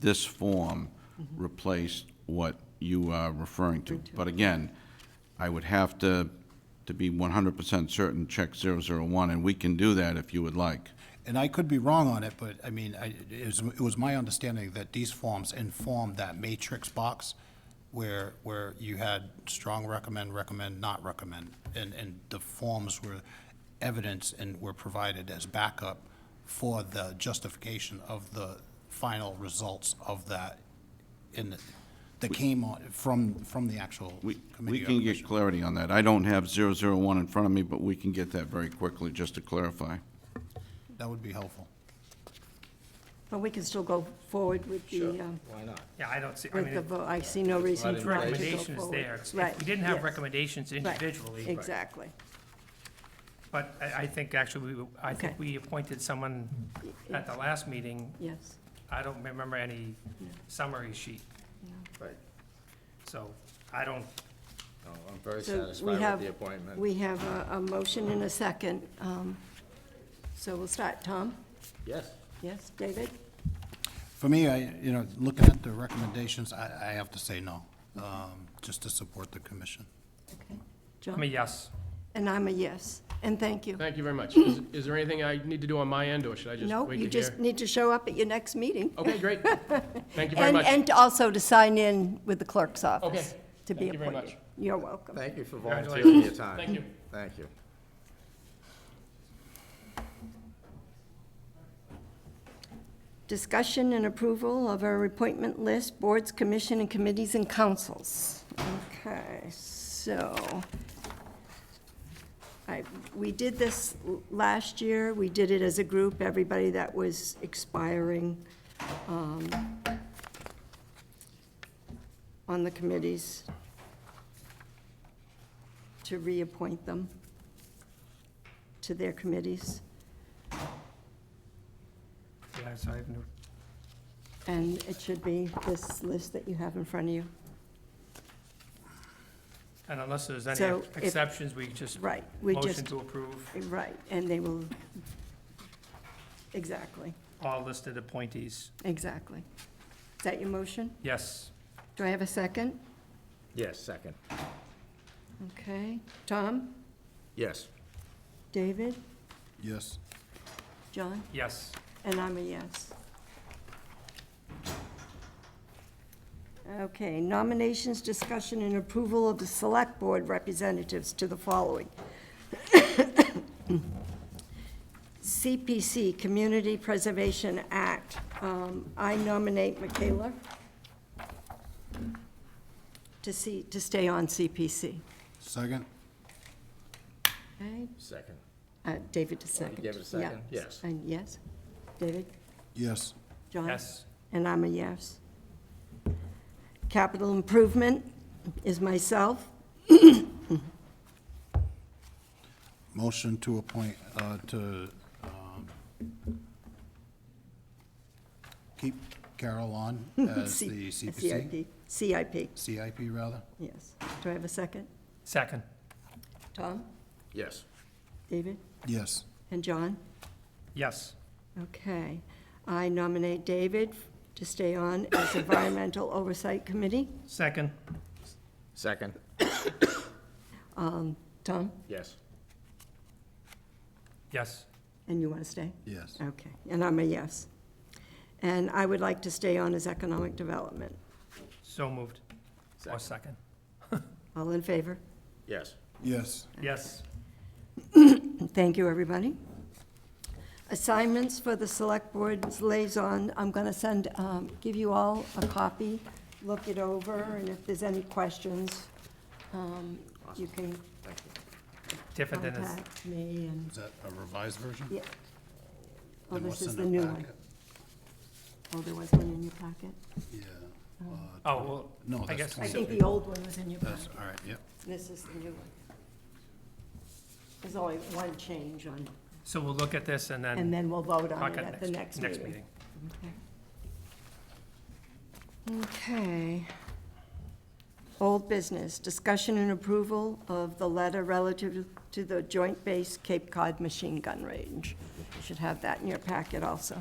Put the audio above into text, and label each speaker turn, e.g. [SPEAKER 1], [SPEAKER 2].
[SPEAKER 1] this form replaced what you are referring to. But again, I would have to, to be 100% certain, check 001, and we can do that if you would like.
[SPEAKER 2] And I could be wrong on it, but I mean, I, it was, it was my understanding that these forms informed that matrix box where, where you had strong recommend, recommend, not recommend, and, and the forms were evidence and were provided as backup for the justification of the final results of that in, the- that came on, from, from the actual
[SPEAKER 1] We, we
[SPEAKER 2] committee. or
[SPEAKER 1] can
[SPEAKER 2] commission.
[SPEAKER 1] get clarity on that. I don't have 001 in front of me, but we can get that very quickly, just to clarify.
[SPEAKER 2] That would be helpful.
[SPEAKER 3] But we can still go forward with the, um,
[SPEAKER 4] Why not?
[SPEAKER 5] Yeah, I don't see, I
[SPEAKER 3] with
[SPEAKER 5] mean,
[SPEAKER 3] the,
[SPEAKER 5] if
[SPEAKER 3] vote. I see no reason
[SPEAKER 5] the
[SPEAKER 3] for not to go
[SPEAKER 5] recommendation is
[SPEAKER 3] forward.
[SPEAKER 5] there. If
[SPEAKER 3] Right,
[SPEAKER 5] we didn't have
[SPEAKER 3] yes,
[SPEAKER 5] recommendations
[SPEAKER 3] right,
[SPEAKER 5] individually,
[SPEAKER 3] Exactly.
[SPEAKER 5] but I, I think actually, we I
[SPEAKER 3] Okay.
[SPEAKER 5] think we appointed someone at the last meeting.
[SPEAKER 3] Yes.
[SPEAKER 5] I don't remember any summary sheet,
[SPEAKER 4] Right.
[SPEAKER 5] so I don't,
[SPEAKER 4] No, I'm very
[SPEAKER 3] So
[SPEAKER 4] satisfied
[SPEAKER 3] we
[SPEAKER 4] with
[SPEAKER 3] have,
[SPEAKER 4] the appointment.
[SPEAKER 3] we have a, a motion and a second. um, So we'll start. Tom?
[SPEAKER 4] Yes.
[SPEAKER 3] Yes, David?
[SPEAKER 2] For me, I, you know, looking at the recommendations, I, I have to say no, um, just to support the commission.
[SPEAKER 5] I
[SPEAKER 3] John?
[SPEAKER 5] mean, yes.
[SPEAKER 3] And I'm a yes. And thank you.
[SPEAKER 6] Thank you very much. Is is there anything I need to do on my end, or should I just
[SPEAKER 3] No,
[SPEAKER 6] wait
[SPEAKER 3] you
[SPEAKER 6] to
[SPEAKER 3] just
[SPEAKER 6] hear?
[SPEAKER 3] need to show up at your next meeting.
[SPEAKER 6] Okay, great. Thank you very
[SPEAKER 3] And,
[SPEAKER 6] much.
[SPEAKER 3] and also to sign in with the clerk's office.
[SPEAKER 6] Okay.
[SPEAKER 3] to be
[SPEAKER 6] Thank you very
[SPEAKER 3] appointed.
[SPEAKER 6] much.
[SPEAKER 3] You're welcome.
[SPEAKER 4] Thank you for volunteering your time.
[SPEAKER 6] Thank you.
[SPEAKER 4] Thank you.
[SPEAKER 3] Discussion and approval of our appointment list, boards, commission, and committees and councils. Okay, so, I, we did this l- last year, we did it as a group, everybody that was expiring um, on the committees to reappoint them to their committees.
[SPEAKER 5] Yeah, so I have no,
[SPEAKER 3] And it should be this list that you have in front of you.
[SPEAKER 5] and unless there's any
[SPEAKER 3] So if-
[SPEAKER 5] exceptions, we just
[SPEAKER 3] Right, we
[SPEAKER 5] motion
[SPEAKER 3] just,
[SPEAKER 5] to approve
[SPEAKER 3] right, and they will, exactly,
[SPEAKER 5] all listed appointees.
[SPEAKER 3] exactly. Is that your motion?
[SPEAKER 5] Yes,
[SPEAKER 3] Do I have a second?
[SPEAKER 4] Yes, second.
[SPEAKER 3] Okay. Tom?
[SPEAKER 4] Yes.
[SPEAKER 3] David?
[SPEAKER 2] Yes.
[SPEAKER 3] John?
[SPEAKER 5] yes.
[SPEAKER 3] And I'm a yes. Okay, nominations, discussion, and approval of the Select Board representatives to the following. CPC, Community Preservation Act. Um, I nominate Michaela to see, to stay on CPC.
[SPEAKER 2] Second?
[SPEAKER 3] Okay,
[SPEAKER 4] Second.
[SPEAKER 3] uh, David to second.
[SPEAKER 4] gave it a second?
[SPEAKER 3] Yeah.
[SPEAKER 4] Yes.
[SPEAKER 3] And yes? David?
[SPEAKER 2] Yes.
[SPEAKER 3] John?
[SPEAKER 5] Yes,
[SPEAKER 3] And I'm a yes. Capital improvement is myself.
[SPEAKER 2] Motion to appoint, uh, to, um, keep Carol on as
[SPEAKER 3] C-
[SPEAKER 2] the CPC,
[SPEAKER 3] CIP, CIP,
[SPEAKER 2] CIP rather.
[SPEAKER 3] yes. Do I have a second?
[SPEAKER 5] second,
[SPEAKER 3] Tom?
[SPEAKER 4] Yes.
[SPEAKER 3] David?
[SPEAKER 2] Yes.
[SPEAKER 3] And John?
[SPEAKER 5] yes.
[SPEAKER 3] Okay. I nominate David to stay on as Environmental Oversight Committee.
[SPEAKER 5] Second,
[SPEAKER 4] Second.
[SPEAKER 3] Tom?
[SPEAKER 4] Yes.
[SPEAKER 5] yes.
[SPEAKER 3] And you want to stay?
[SPEAKER 2] Yes.
[SPEAKER 3] Okay. And I'm a yes. And I would like to stay on as Economic Development.
[SPEAKER 5] So moved. Or
[SPEAKER 4] Second.
[SPEAKER 5] second,
[SPEAKER 3] All in favor?
[SPEAKER 4] Yes.
[SPEAKER 2] Yes.
[SPEAKER 5] yes.
[SPEAKER 3] Thank you, everybody. Assignments for the Select Board's liaison, I'm going to send, um, give you all a copy, look it over, and if there's any questions, um, you can
[SPEAKER 4] Thank you.
[SPEAKER 5] Different than this.
[SPEAKER 3] contact me and,
[SPEAKER 2] Is that a revised version?
[SPEAKER 3] yeah. Oh,
[SPEAKER 2] Then we'll
[SPEAKER 3] this is
[SPEAKER 2] send
[SPEAKER 3] the
[SPEAKER 2] it
[SPEAKER 3] new
[SPEAKER 2] back.
[SPEAKER 3] one. Oh, there was one in your packet?
[SPEAKER 2] Yeah. uh,
[SPEAKER 5] Oh, well,
[SPEAKER 2] No,
[SPEAKER 5] I
[SPEAKER 2] that's
[SPEAKER 5] guess,
[SPEAKER 3] I
[SPEAKER 2] twenty.
[SPEAKER 3] think the old one was in your
[SPEAKER 2] That's,
[SPEAKER 3] packet.
[SPEAKER 2] all right, yep.
[SPEAKER 3] This is the new one. There's only one change on,
[SPEAKER 5] so we'll look at this and
[SPEAKER 3] and
[SPEAKER 5] then
[SPEAKER 3] then we'll vote on
[SPEAKER 5] talk
[SPEAKER 3] it at
[SPEAKER 5] at
[SPEAKER 3] the
[SPEAKER 5] next,
[SPEAKER 3] next meeting.
[SPEAKER 5] next meeting.
[SPEAKER 3] Okay. Old business, discussion and approval of the letter relative to the Joint Base Cape Cod Machine Gun Range. You Should have that in your packet also.